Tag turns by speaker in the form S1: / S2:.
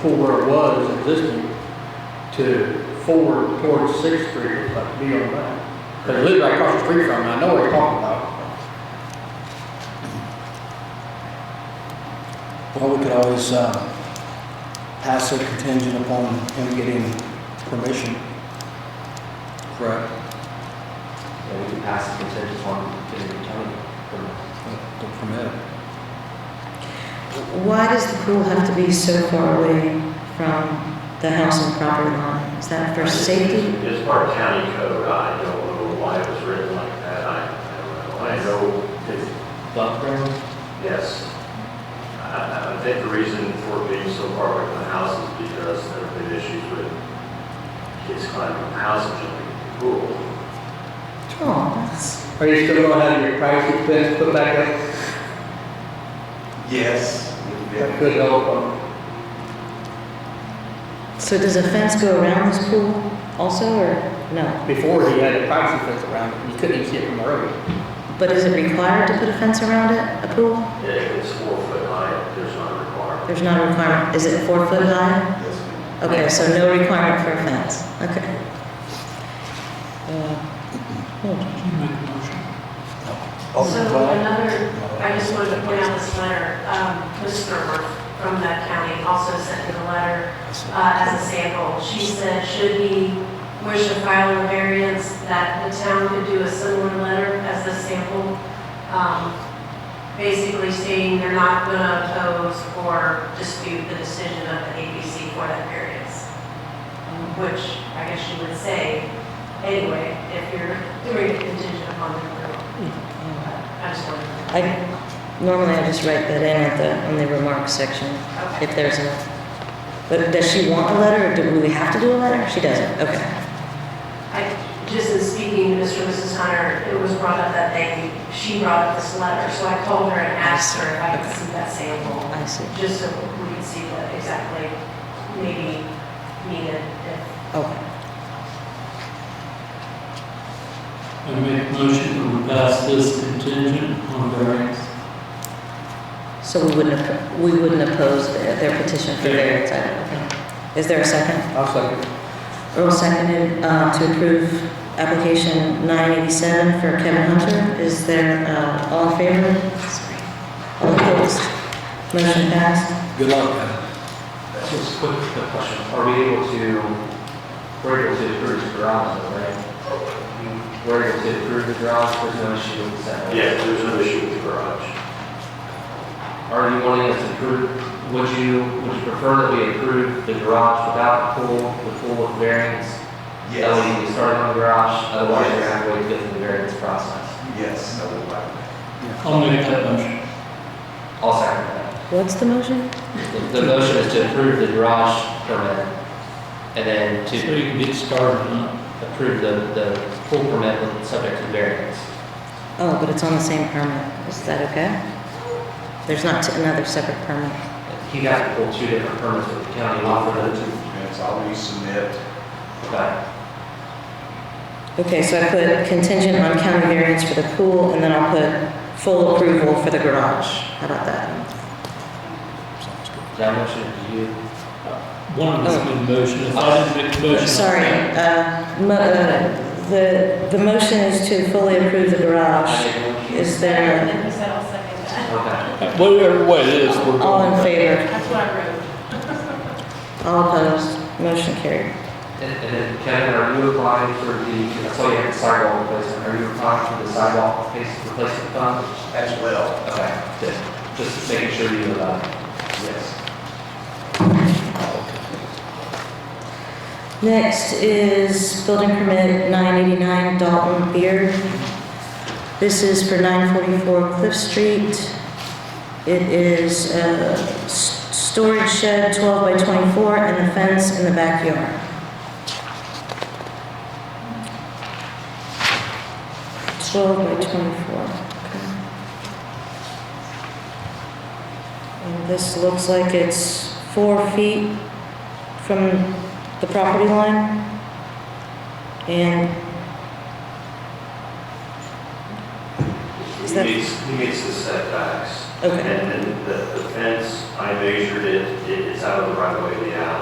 S1: for where it was existing to forward towards Sixth Street, it's like be on that. But it lives right across the street from me, I know what you're talking about.
S2: Well, we could always uh, pass a contingent upon him getting permission. Correct.
S3: Yeah, we can pass the consensus on to the county.
S2: The permit.
S4: Why does the pool have to be so far away from the house and property line? Is that for safety?
S5: It's part of county code, I don't know why it was written like that, I, I don't know, I know, it's,
S1: Lot of-
S5: yes. I, I think the reason for it being so far away from the house is because there have been issues with kids climbing the house and jumping in the pool.
S4: Oh, that's,
S1: Are you still gonna have your privacy fence put back up?
S3: Yes.
S1: That could help, um,
S4: so does a fence go around this pool also, or no?
S1: Before he had a privacy fence around it, you couldn't even see it from the road.
S4: But is it required to put a fence around it, a pool?
S5: If it's four foot high, there's not required.
S4: There's not a requirement, is it four foot high? Okay, so no requirement for a fence, okay.
S2: Oh,
S6: So
S2: well,
S6: another, I just wanted to point out this letter, um, Ms. Gerber from that county also sent me the letter uh, as a sample. She said, should he wish to file a variance, that the town could do a similar letter as the sample, um, basically stating they're not going to oppose or dispute the decision of the ABC for that variance. Um, Which I guess you would say anyway, if you're doing a contingent upon their approval. I just wanted to.
S4: I, normally I just write that in at the, in the remarks section, if there's a, but does she want a letter, or do we have to do a letter? She doesn't, okay.
S6: I, just in speaking to Mr. and Mrs. Hunter, it was brought up that they, she brought up this letter, so I called her and asked her if I could see that sample,
S4: I see,
S6: just so we could see what exactly maybe needed. if-
S4: okay.
S7: I make a motion to pass this contingent on variance.
S4: So we wouldn't, oppo- we wouldn't oppose their their petition for variance, I don't think. Is there a second?
S1: I'll second.
S4: Earl seconded uh, to approve application 987 for Kevin Hunter. Is there, uh, all in favor? All opposed? Motion passed.
S2: Good luck, Kevin.
S3: Just a quick quick question, are we able to, we're able to approve the garage, though, right? We're able to approve the garage, there's no issue with that.
S5: Yeah, there's no issue with the garage.
S3: Are you wanting us to approve, would you, would you prefer that we approve the garage without the pool, the pool with variance? That way you can start on the garage, otherwise you're gonna have to wait to go through the variance process.
S8: Yes, I would like that.
S7: I'll make that motion.
S3: I'll second that.
S4: What's the motion?
S3: The the motion is to approve the garage permit and then
S7: So
S3: to
S7: you can get started on
S3: approve the, the pool permit with subject to variance.
S4: Oh, but it's on the same permit. Is that okay? There's not t- another separate permit.
S3: He got to pull two different permits with the county law for those two.
S8: Yes, I'll resubmit.
S3: Okay.
S4: Okay, so I put contingent on county variance for the pool, and then I'll put full approval for the garage. How about that?
S2: Sounds good.
S3: That motion, do you?
S7: one of us made a motion, if I didn't make a motion. I'll
S4: Sorry,
S7: second.
S4: uh, mo- uh, the, the motion is to fully approve the garage. Is there,
S6: And he said, I'll second that.
S3: Okay.
S7: Whatever way it is, we're going.
S4: all in favor?
S6: That's what I wrote.
S4: All opposed? Motion carried.
S3: And and then Kevin, are you applying for the, that's all you have the sidewalk replacement, are you applying for the sidewalk face replacement fund?
S8: As well.
S3: Okay, good. Just making sure you, uh,
S8: Yes.
S4: Next is building permit 989 Dalton Beard. This is for 944 Cliff Street. It is a s- storage shed, 12 by 24, and a fence in the backyard. Twelve by twenty-four. okay. And this looks like it's four feet from the property line. And Is
S5: He
S4: that-
S5: meets, he meets the setbacks.
S4: Okay.
S5: And then the the fence, I measured it, it- it's out of the right of way of the